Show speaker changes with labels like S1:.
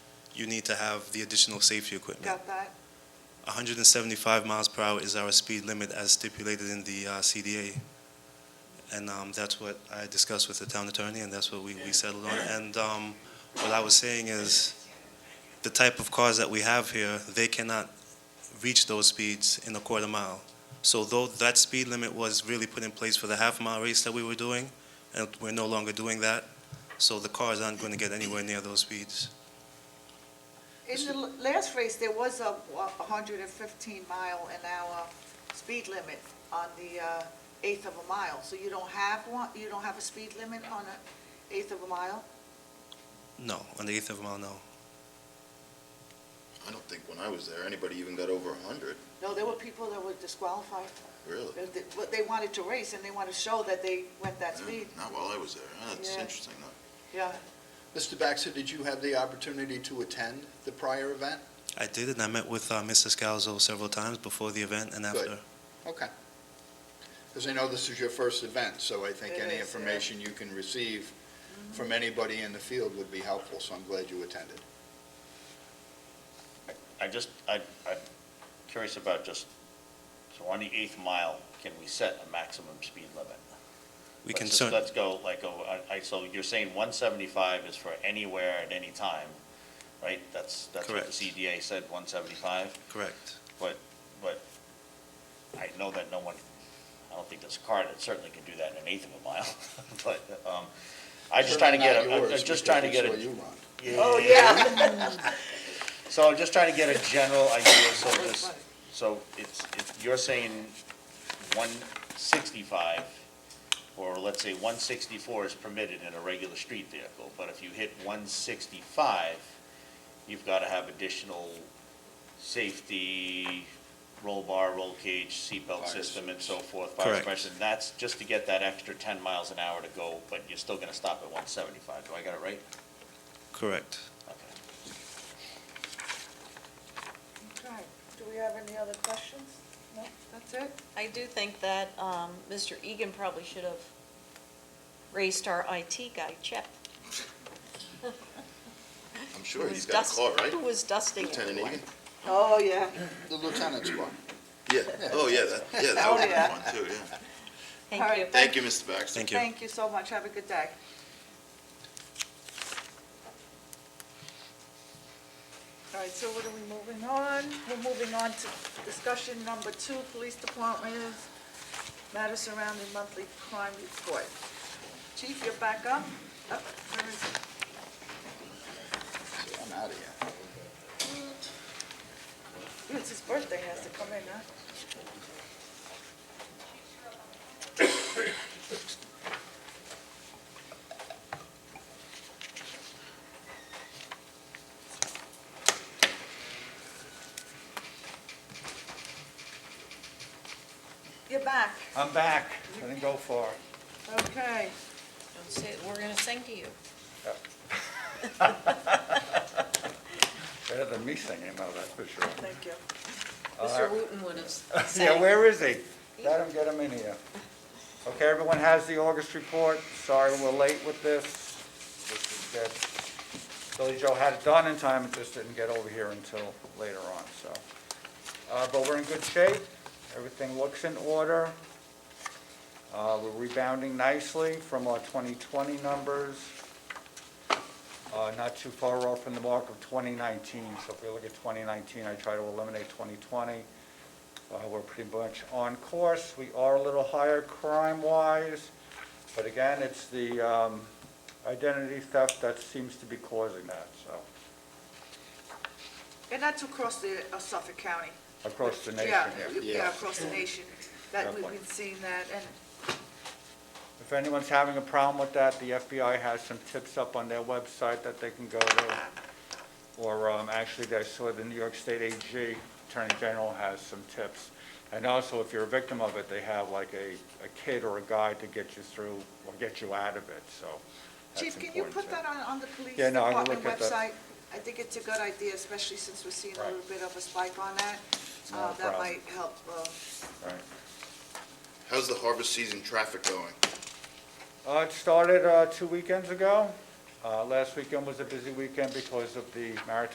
S1: you need to have the additional safety equipment.
S2: Got that?
S1: 175 miles per hour is our speed limit as stipulated in the uh, CDA. And um, that's what I discussed with the town attorney, and that's what we we settled on. And um, what I was saying is, the type of cars that we have here, they cannot reach those speeds in a quarter mile. So though that speed limit was really put in place for the half-mile race that we were doing, and we're no longer doing that, so the cars aren't going to get anywhere near those speeds.
S2: In the l- last race, there was a wa- 115 mile an hour speed limit on the uh, eighth of a mile. So you don't have one, you don't have a speed limit on an eighth of a mile?
S1: No, on the eighth of a mile, no.
S3: I don't think when I was there, anybody even got over a hundred,
S2: No, there were people that were disqualified,
S3: really.
S2: They- they- but they wanted to race and they wanted to show that they went that
S3: Yeah,
S2: speed.
S3: Not while I was there. Huh, That's
S2: Yeah.
S3: interesting, though.
S2: Yeah,
S4: Mr. Baxter, did you have the opportunity to attend the prior event?
S1: I did, and I met with uh, Mr. Scalzo several times before the event and after.
S4: Okay. Because I know this is your first event, so I think
S2: It
S4: any
S2: is, yeah.
S4: information you can receive from anybody in the field would be helpful, so I'm glad you attended.
S5: I just, I, I'm curious about just, so on the eighth mile, can we set a maximum speed limit?
S1: We
S5: Let's
S1: can
S5: just-
S1: cer-
S5: Let's go, like, oh, I, I- so you're saying one seventy-five is for anywhere at any time, right? That's, that's what the
S1: Correct.
S5: CDA said, one seventy-five,
S1: correct.
S5: but I know that no one, I don't think there's a car that certainly can do that in an eighth of a mile, but, um, I just trying to get, a- I'm- I'm just trying to get a.
S2: Oh, yeah.
S5: So I'm just trying to get a general idea, so this, so it's, if you're saying one sixty-five, or let's say one sixty-four is permitted in a regular street vehicle, but if you hit one sixty-five, you've gotta have additional safety, roll bar, roll cage, seatbelt
S4: Fire
S5: system and so forth, fire
S1: Correct.
S5: suppression, that's just to get that extra ten miles an hour to go, but you're still gonna stop at one seventy-five, do I got it right?
S1: Correct.
S5: Okay.
S2: Okay. Do we have any other questions? No, that's it?
S6: I do think that um, Mr. Egan probably should have raised our IT guy, Chip.
S3: I'm
S6: who
S3: sure he's
S6: was
S3: got a
S6: dust-
S3: car, right?
S6: Who was dusting
S3: Lieutenant
S6: everyone.
S3: Egan?
S2: Oh, yeah.
S4: The lieutenant's car.
S3: Yeah, oh, yeah, that, yeah, that
S2: Oh,
S3: would be
S2: yeah.
S3: fun, too, yeah.
S2: All
S6: Thank
S2: right,
S6: you.
S3: Thank you, Mr. Baxter.
S1: Thank you.
S2: Thank you so much. Have a good day. All right, so what are we moving on? We're moving on to discussion number two, police department, matters surrounding monthly crime report. Chief, you're back up? Up, there is-
S4: See, I'm out of here.
S2: It's his birthday, he has to come in, huh? You're back,
S7: I'm back. I didn't go far.
S2: okay.
S6: Don't say- We're going to sing to you.
S7: Better than me singing, no, that's for sure.
S2: Thank you.
S7: Uh,
S6: Mr. Wooten would have
S7: Yeah,
S6: sang.
S7: where is he? Let him get him in here. Okay, everyone has the August report. Sorry we're late with this. This is good. Billy Joe had it done in time, it just didn't get over here until later on, so. Uh, But we're in good shape. Everything looks in order. Uh, We're rebounding nicely from our 2020 numbers. Uh, Not too far off from the mark of 2019. So if we look at 2019, I try to eliminate 2020. Uh, We're pretty much on course. We are a little higher crime-wise, but again, it's the um, identity theft that seems to be causing that, so,
S2: And that's across the uh, Suffolk County.
S7: across the nation
S2: Yeah,
S7: here.
S2: Yeah, across the nation, that we've
S7: Definitely.
S2: been seeing that, and
S7: If anyone's having a problem with that, the FBI has some tips up on their website that they can go to. Or um, actually, I saw the New York State AG, Attorney General, has some tips. And also, if you're a victim of it, they have like a a kid or a guide to get you through or get you out of it, so. that's
S2: Chief, can you
S7: important,
S2: put
S7: too.
S2: that on, on the police
S7: Yeah, no, I will
S2: department
S7: look at
S2: website?
S7: that.
S2: I think it's a good idea, especially since we're seeing a
S7: Right.
S2: little bit of a spike on that. Uh,
S7: Not a
S2: That
S7: problem.
S2: might help. uh,
S7: Right.
S3: How's the harvest season traffic going?
S7: Uh, It started uh, two weekends ago. Uh, Last weekend was a busy weekend because of the maritime